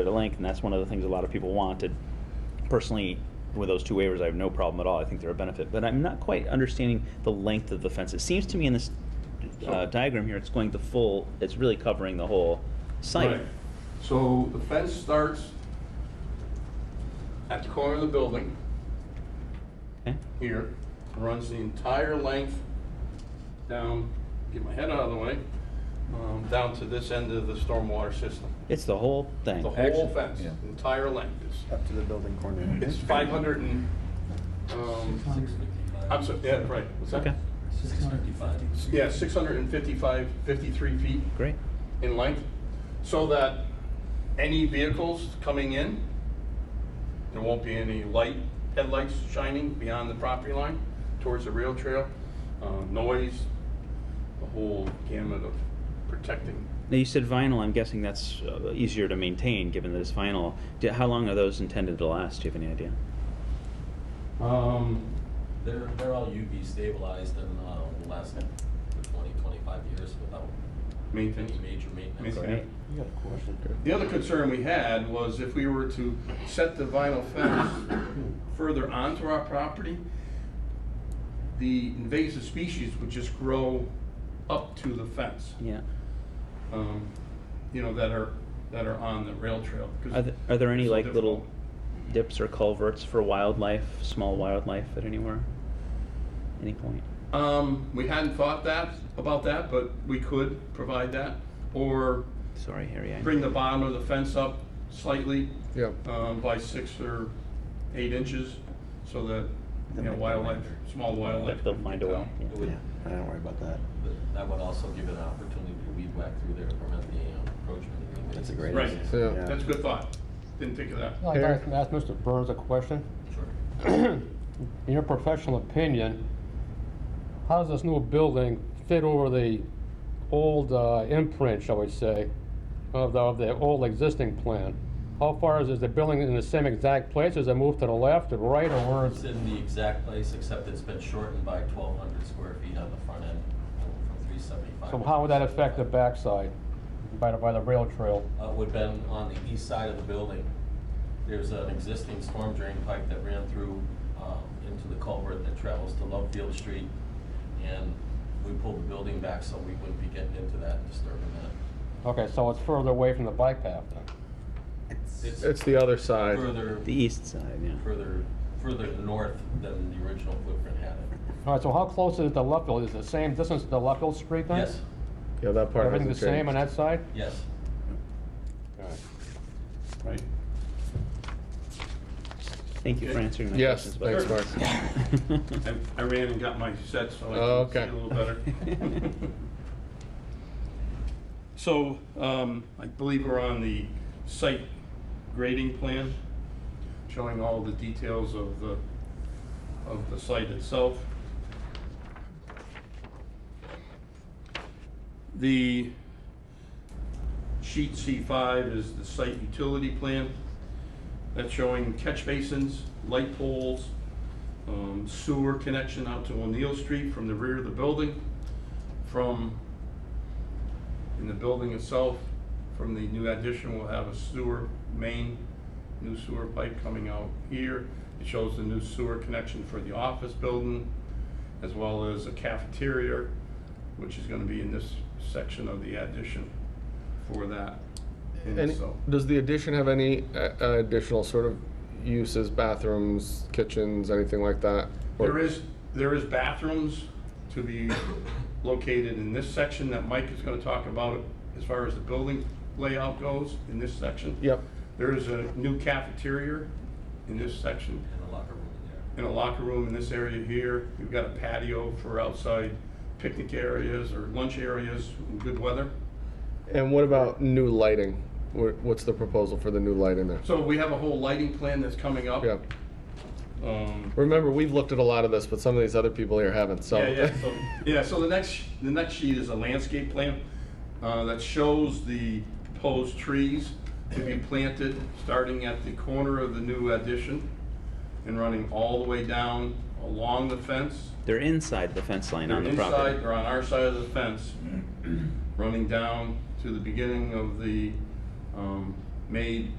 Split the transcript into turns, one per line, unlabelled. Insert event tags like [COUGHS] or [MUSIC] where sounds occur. at a link, and that's one of the things a lot of people wanted. Personally, with those two waivers, I have no problem at all. I think they're a benefit, but I'm not quite understanding the length of the fence. It seems to me in this uh, diagram here, it's going the full, it's really covering the whole site.
Right. So the fence starts at the corner of the building
Okay.
here, runs the entire length down, get my head out of the way, um, down to this end of the stormwater system.
It's the whole thing.
The whole
Actually,
fence,
yeah.
entire length is
Up to the building corner.
It's 500 and, um, I'm sorry, yeah, right. What's that?
Okay,
Six fifty-five.
Yeah, 655, 53 feet
great.
in length, so that any vehicles coming in, there won't be any light, headlights shining beyond the property line towards the rail trail, uh, noise, the whole gamut of protecting.
Now, you said vinyl, I'm guessing that's uh, easier to maintain, given that it's vinyl. Do- How long are those intended to last? Do you have any idea?
Um,
They're, they're all UV stabilized and, uh, will last twenty, twenty-five years without any
Maintenance.
major maintenance.
Maintenance. Right.
You got a question.
The other concern we had was if we were to set the vinyl fence further onto our property, the invasive species would just grow up to the fence.
Yeah.
um, you know, that are, that are on the rail trail. 'cause
Are, th- are there any
it's so
like little
difficult.
dips or culverts for wildlife, small wildlife at anywhere, any point?
Um, we hadn't thought that, about that, but we could provide that, or
Sorry, Harry. I
bring the bottom of the fence up slightly,
Yep.
um, by six or eight inches, so that, you
Then
know,
make the
wildlife,
winder.
small wildlife.
They'll
can
find a
get
way.
down.
Yeah.
It would,
Yeah, I don't worry about that.
but that would also give it an opportunity to weed whack through there to prevent the um, encroachment. of the
That's a
invasive
great
Right.
idea.
Yeah.
Yeah.
That's a good thought, didn't think of that.
I'd like to ask Mr. Burns a question.
species. Sure.
In your professional opinion, how does this new building fit over the old uh, imprint, shall we say, of the, of the old existing plan? How far is, is the building in the same exact place? Is it moved to the left or right or where
It's
is it?
in the exact place, except it's been shortened by twelve hundred square feet on the front end, from three seventy-five.
So how would that affect the backside by the, by the rail trail?
uh, would been on the east side of the building. There's an existing storm drain pipe that ran through um, into the culvert that travels to Lovefield Street. And we pulled the building back so we wouldn't be getting into that and disturbing that.
Okay, so it's further away from the bike path then?
It's the other side.
Further,
The east side, yeah.
further, further north than the original footprint had it.
All right, so how close is it to Luffield? Is it the same distance to Luffield Street then?
Yes,
Yeah, that part
Everything the
hasn't
same on
changed.
that side?
yes.
All right.
Right.
Thank you for
Okay.
answering my
Yes, thanks, Mark.
questions. [LAUGHS] Mark.
I, I ran and got my set so
Oh,
I can see a
okay.
little
[LAUGHS]
better. So, um, I believe we're on the site grading plan, showing all the details of the, of the site itself. The sheet C five is the site utility plan. That's showing catch basins, light poles, um, sewer connection out to O'Neill Street from the rear of the building, from, in the building itself, from the new addition, we'll have a sewer main, new sewer pipe coming out here. It shows the new sewer connection for the office building, as well as a cafeteria, which is gonna be in this section of the addition for that in
Any-
itself.
does the addition have any uh, additional sort of uses, bathrooms, kitchens, anything like that? Or-
There is, there is bathrooms to be [COUGHS] located in this section that Mike is gonna talk about as far as the building layout goes in this section.
Yep.
There is a new cafeteria in this section,
And the locker room in there.
and a locker room in this area here. We've got a patio for outside picnic areas or lunch areas in good weather.
And what about new lighting? Wha- What's the proposal for the new light in there?
So we have a whole lighting plan that's coming up.
Yeah.
Um,
Remember, we've looked at a lot of this, but some of these other people here haven't. So.
Yeah, yeah, so, yeah, so the next, the next sheet is a landscape plan, uh, that shows the proposed trees to be planted, starting at the corner of the new addition and running all the way down along the fence.
They're inside the fence line on
They're
the property.
inside, they're on our side of the fence, running down to the beginning of the, um, made